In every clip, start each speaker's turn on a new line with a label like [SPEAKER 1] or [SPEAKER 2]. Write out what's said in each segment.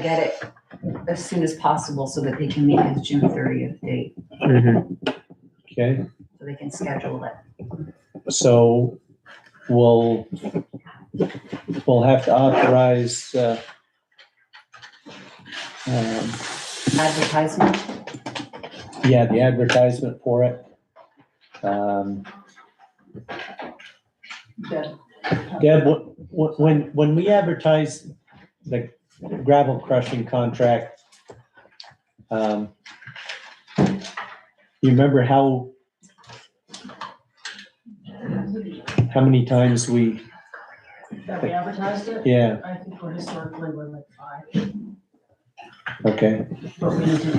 [SPEAKER 1] get it as soon as possible so that they can meet his June thirtieth date,
[SPEAKER 2] Okay,
[SPEAKER 1] so they can schedule it.
[SPEAKER 2] so we'll, we'll have to authorize, uh, um,
[SPEAKER 1] Advertisement,
[SPEAKER 2] yeah, the advertisement for it. Um,
[SPEAKER 1] Deb.
[SPEAKER 2] Deb, wh- wh- when, when we advertise the gravel crushing contract, um, you remember how, how many times we,
[SPEAKER 3] That we advertised it?
[SPEAKER 2] yeah,
[SPEAKER 3] I think we're historically, we're like five,
[SPEAKER 2] okay,
[SPEAKER 3] but we need to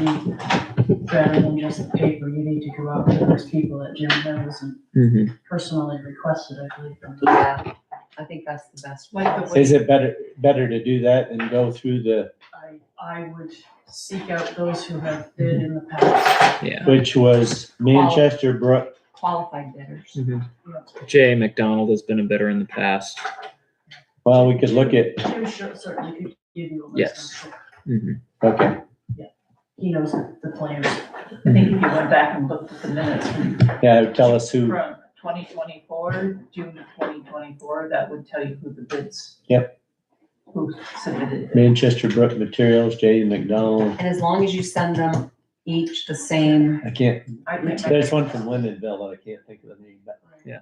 [SPEAKER 3] be better than just the paper. You need to go out to those people that Jim knows and personally requested, I believe. from the-
[SPEAKER 1] yeah, I think that's the best. way.
[SPEAKER 3] Like the way
[SPEAKER 2] Is it better, better to do that than go through the,
[SPEAKER 3] I, I would seek out those who have bid in the past.
[SPEAKER 4] Yeah.
[SPEAKER 2] which was Manchester Brook?
[SPEAKER 1] Qualified bidders.
[SPEAKER 2] Mm-hmm.
[SPEAKER 4] Jay McDonald has been a bidder in the past.
[SPEAKER 2] Well, we could look at,
[SPEAKER 3] Jim sure- certainly could give you a
[SPEAKER 4] Yes.
[SPEAKER 3] list. I'm sure.
[SPEAKER 4] Mm-hmm.
[SPEAKER 2] okay,
[SPEAKER 3] He knows the the players. I think if you went back and looked at the minutes from
[SPEAKER 2] yeah, tell us who,
[SPEAKER 3] twenty twenty-four, June of twenty twenty-four, that would tell you who the bids.
[SPEAKER 2] Yep.
[SPEAKER 3] Who submitted
[SPEAKER 2] Manchester Brook Materials, J. McDonald.
[SPEAKER 1] And as long as you send them each the same,
[SPEAKER 2] I can't,
[SPEAKER 3] I can't remember.
[SPEAKER 2] there's one from Lindenville that I can't think of the name, but.
[SPEAKER 4] Yeah.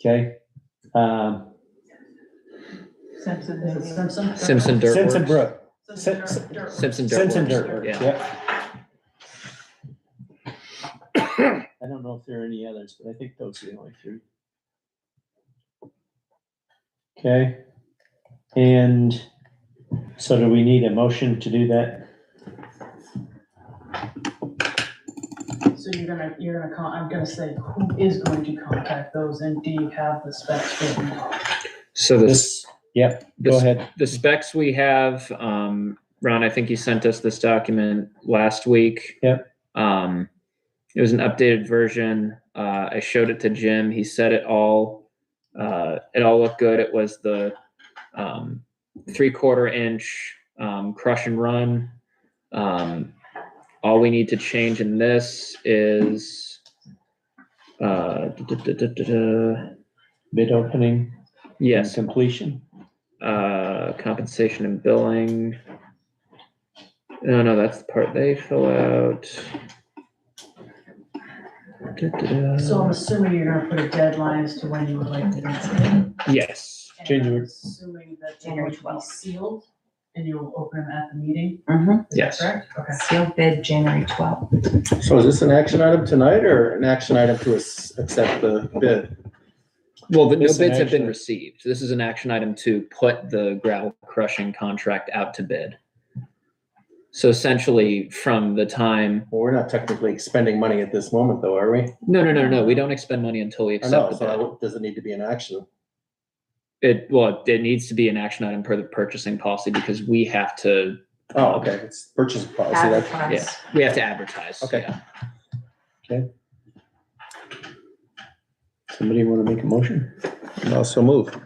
[SPEAKER 2] Okay, um,
[SPEAKER 3] Simpson. Is it Simpson?
[SPEAKER 4] Simpson Dirt
[SPEAKER 2] Simpson
[SPEAKER 4] Works.
[SPEAKER 2] Brook,
[SPEAKER 3] Simpson Dirt- Dirt.
[SPEAKER 4] Simpson Dirt.
[SPEAKER 2] Simpson
[SPEAKER 4] Works.
[SPEAKER 2] Dirt Works,
[SPEAKER 4] Yeah.
[SPEAKER 2] yep. I don't know if there are any others, but I think those are the only three. Okay, and so do we need a motion to do that?
[SPEAKER 3] So you're gonna, you're gonna con, I'm gonna say, who is going to contact those and do you have the specs written?
[SPEAKER 4] So the,
[SPEAKER 2] This, yep, go
[SPEAKER 4] This-
[SPEAKER 2] ahead.
[SPEAKER 4] the specs we have, um, Ron, I think you sent us this document last week.
[SPEAKER 2] Yep.
[SPEAKER 4] Um, it was an updated version. Uh, I showed it to Jim. He said it all, uh, it all looked good. It was the, um, three quarter inch, um, crush and run. Um, all we need to change in this is, uh, duh, duh, duh, duh, duh, duh.
[SPEAKER 2] Bid opening and
[SPEAKER 4] yes,
[SPEAKER 2] completion.
[SPEAKER 4] uh, compensation and billing. No, no, that's the part they fill out. Da-da-da.
[SPEAKER 3] So I'm assuming you're gonna put a deadline as to when you would like the bids. in.
[SPEAKER 4] Yes,
[SPEAKER 3] And
[SPEAKER 2] January.
[SPEAKER 3] I'm Assuming that they
[SPEAKER 1] January
[SPEAKER 3] would be
[SPEAKER 1] 12th.
[SPEAKER 3] sealed and you'll open them at the meeting,
[SPEAKER 4] Mm-hmm.
[SPEAKER 1] Mhm.
[SPEAKER 3] is that
[SPEAKER 4] Yes.
[SPEAKER 3] correct? Okay.
[SPEAKER 1] sealed bid January twelfth.
[SPEAKER 5] So Oh, is this an action item tonight or an action item to ac- accept the bid?
[SPEAKER 4] well, the no
[SPEAKER 2] This is an
[SPEAKER 4] bids have been
[SPEAKER 2] action-
[SPEAKER 4] received. This is an action item to put the gravel crushing contract out to bid. So essentially, from the time,
[SPEAKER 5] Well, we're not technically expending money at this moment though, are we?
[SPEAKER 4] no, no, no, no, we don't expend money until we
[SPEAKER 5] I know,
[SPEAKER 4] accept
[SPEAKER 5] so I
[SPEAKER 4] the
[SPEAKER 5] don't- does it need to be an action?
[SPEAKER 4] bid. It, well, it needs to be an action item per the purchasing policy because we have to,
[SPEAKER 5] Oh, okay, it's purchase policy, Oh, that's,
[SPEAKER 4] yeah,
[SPEAKER 1] Advertise.
[SPEAKER 4] we have to advertise.
[SPEAKER 5] Okay.
[SPEAKER 4] yeah.
[SPEAKER 2] Somebody want to make a motion?
[SPEAKER 5] also move.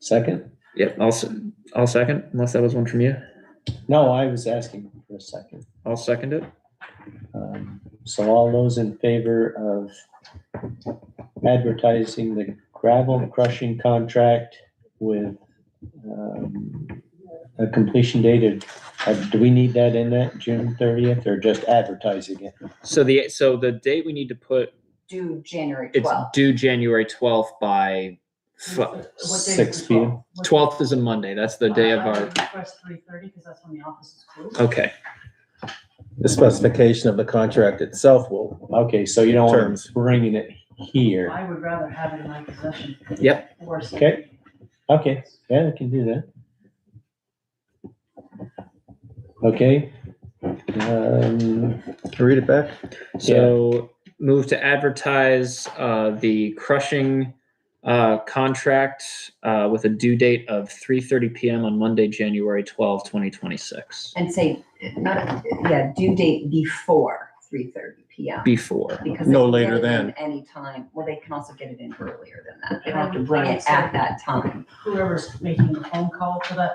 [SPEAKER 2] Second?
[SPEAKER 4] Yep, I'll, s- I'll second, unless that was one from you.
[SPEAKER 2] No, I was asking for a second.
[SPEAKER 4] I'll second it.
[SPEAKER 2] Um, So all those in favor of advertising the gravel crushing contract with um, a completion date of, uh, do we need that in that, June thirtieth, or just advertising it?
[SPEAKER 4] So the, so the date we need to put,
[SPEAKER 1] Due January
[SPEAKER 4] it's
[SPEAKER 1] twelfth.
[SPEAKER 4] due January twelfth by,
[SPEAKER 3] What day is the
[SPEAKER 2] Six P M.
[SPEAKER 3] 12th? What-
[SPEAKER 4] twelfth is a Monday, that's the day of
[SPEAKER 3] Uh, I- I
[SPEAKER 4] our,
[SPEAKER 3] would Request three thirty, because that's when the office is closed.
[SPEAKER 4] okay.
[SPEAKER 5] The specification of the contract itself will,
[SPEAKER 2] Okay, so you don't want
[SPEAKER 5] Terms.
[SPEAKER 2] to bringing it here.
[SPEAKER 3] I would rather have it in my possession.
[SPEAKER 4] Yep.
[SPEAKER 3] Or some-
[SPEAKER 2] Okay. Okay, yeah, we can do that. Okay. Um,
[SPEAKER 5] can you read it back?
[SPEAKER 4] So move to advertise, uh, the crushing, uh, contract, uh, with a due date of three thirty PM on Monday, January twelfth, twenty twenty-six.
[SPEAKER 1] And say, not, yeah, due date before three thirty P M.
[SPEAKER 4] Before,
[SPEAKER 1] Because they
[SPEAKER 5] No
[SPEAKER 1] can get
[SPEAKER 5] later
[SPEAKER 1] it in
[SPEAKER 5] than.
[SPEAKER 1] Any time, well, they can also get it in earlier than that, they
[SPEAKER 3] I
[SPEAKER 1] don't have to
[SPEAKER 3] would-
[SPEAKER 1] bring
[SPEAKER 3] I would
[SPEAKER 1] it at
[SPEAKER 3] say-
[SPEAKER 1] that time.
[SPEAKER 3] Whoever's making the phone call for that